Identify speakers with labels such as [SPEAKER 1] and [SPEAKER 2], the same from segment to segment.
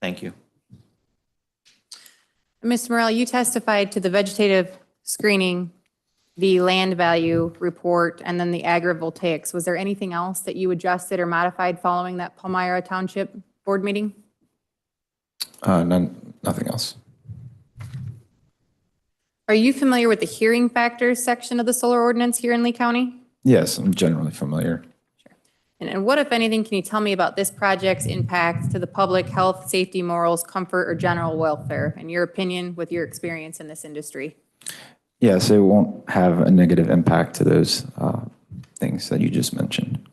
[SPEAKER 1] Thank you.
[SPEAKER 2] Ms. Morel, you testified to the vegetative screening, the land value report, and then the agrivoltaics. Was there anything else that you adjusted or modified following that Palmyra Township Board meeting?
[SPEAKER 3] Uh, none, nothing else.
[SPEAKER 2] Are you familiar with the hearing factors section of the solar ordinance here in Lee County?
[SPEAKER 3] Yes, I'm generally familiar.
[SPEAKER 2] And- And what, if anything, can you tell me about this project's impact to the public health, safety, morals, comfort, or general welfare? In your opinion, with your experience in this industry?
[SPEAKER 3] Yes, it won't have a negative impact to those uh, things that you just mentioned.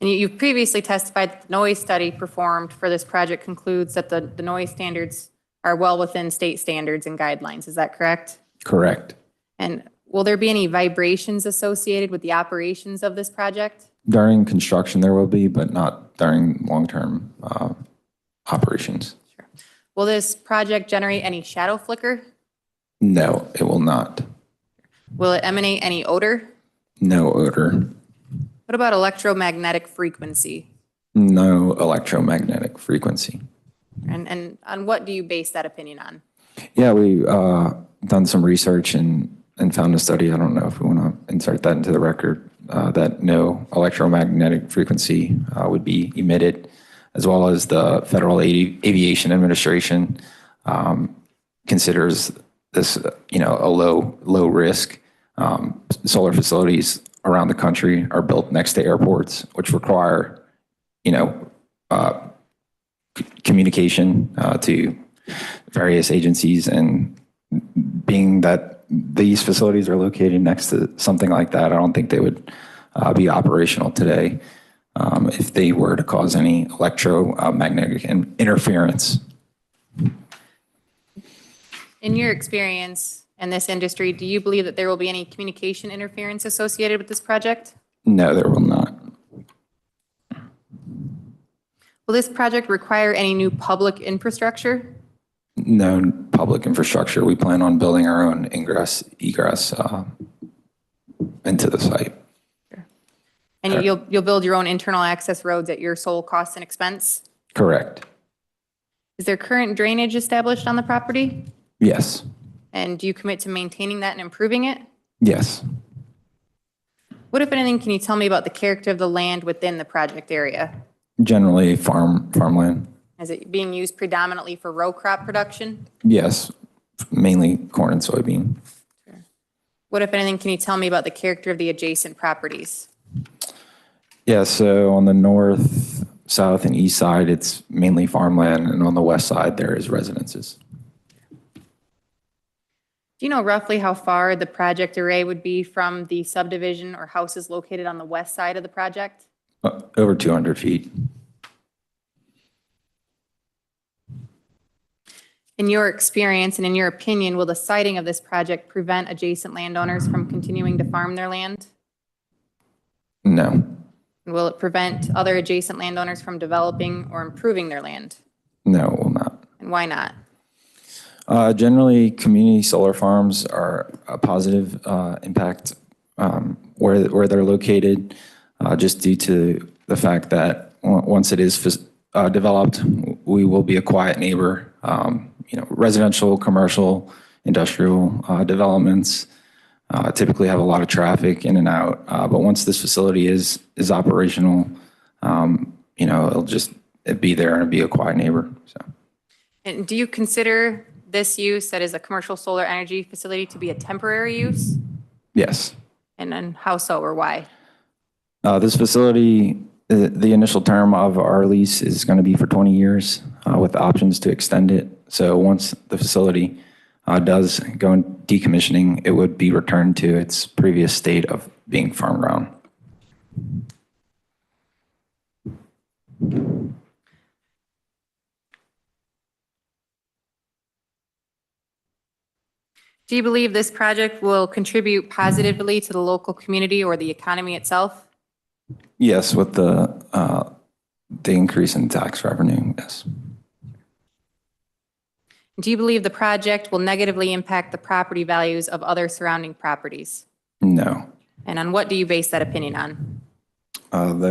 [SPEAKER 2] And you- you've previously testified that the noise study performed for this project concludes that the, the noise standards are well within state standards and guidelines. Is that correct?
[SPEAKER 3] Correct.
[SPEAKER 2] And will there be any vibrations associated with the operations of this project?
[SPEAKER 3] During construction, there will be, but not during long-term uh, operations.
[SPEAKER 2] Will this project generate any shadow flicker?
[SPEAKER 3] No, it will not.
[SPEAKER 2] Will it emanate any odor?
[SPEAKER 3] No odor.
[SPEAKER 2] What about electromagnetic frequency?
[SPEAKER 3] No electromagnetic frequency.
[SPEAKER 2] And, and on what do you base that opinion on?
[SPEAKER 3] Yeah, we uh, done some research and and found a study. I don't know if we want to insert that into the record uh, that no electromagnetic frequency uh, would be emitted, as well as the Federal Avi- Aviation Administration um, considers this, uh, you know, a low low risk. Um, solar facilities around the country are built next to airports, which require, you know, uh, c- communication uh, to various agencies and being that these facilities are located next to something like that, I don't think they would uh, be operational today um, if they were to cause any electromagnetic in- interference.
[SPEAKER 2] In your experience in this industry, do you believe that there will be any communication interference associated with this project?
[SPEAKER 3] No, there will not.
[SPEAKER 2] Will this project require any new public infrastructure?
[SPEAKER 3] No public infrastructure. We plan on building our own ingress, egress uh, into the site.
[SPEAKER 2] And you'll, you'll build your own internal access roads at your sole cost and expense?
[SPEAKER 3] Correct.
[SPEAKER 2] Is there current drainage established on the property?
[SPEAKER 3] Yes.
[SPEAKER 2] And do you commit to maintaining that and improving it?
[SPEAKER 3] Yes.
[SPEAKER 2] What, if anything, can you tell me about the character of the land within the project area?
[SPEAKER 3] Generally farm, farmland.
[SPEAKER 2] Is it being used predominantly for row crop production?
[SPEAKER 3] Yes. Mainly corn and soybean.
[SPEAKER 2] What, if anything, can you tell me about the character of the adjacent properties?
[SPEAKER 3] Yeah, so on the north, south, and east side, it's mainly farmland, and on the west side, there is residences.
[SPEAKER 2] Do you know roughly how far the project array would be from the subdivision or houses located on the west side of the project?
[SPEAKER 3] Uh, Over 200 feet.
[SPEAKER 2] In your experience and in your opinion, will the siting of this project prevent adjacent landowners from continuing to farm their land?
[SPEAKER 3] No,
[SPEAKER 2] And Will it prevent other adjacent landowners from developing or improving their land?
[SPEAKER 3] no, it will not.
[SPEAKER 2] And why not?
[SPEAKER 3] Uh, Generally, community solar farms are a positive uh, impact um, where where they're located, uh, just due to the fact that on- once it is phys- uh, developed, we will be a quiet neighbor. Um, You know, residential, commercial, industrial uh, developments uh, typically have a lot of traffic in and out. Uh, But once this facility is is operational, um, you know, it'll just it'd be there and it'd be a quiet neighbor, so.
[SPEAKER 2] And do you consider this use that is a commercial solar energy facility to be a temporary use?
[SPEAKER 3] Yes.
[SPEAKER 2] And then how so or why?
[SPEAKER 3] Uh, This facility, the the initial term of our lease is going to be for 20 years uh, with options to extend it. So once the facility uh, does go in decommissioning, it would be returned to its previous state of being farm ground.
[SPEAKER 2] Do you believe this project will contribute positively to the local community or the economy itself?
[SPEAKER 3] Yes, with the uh, the increase in tax revenue, yes.
[SPEAKER 2] Do you believe the project will negatively impact the property values of other surrounding properties?
[SPEAKER 3] No.
[SPEAKER 2] And on what do you base that opinion on?
[SPEAKER 3] Uh, The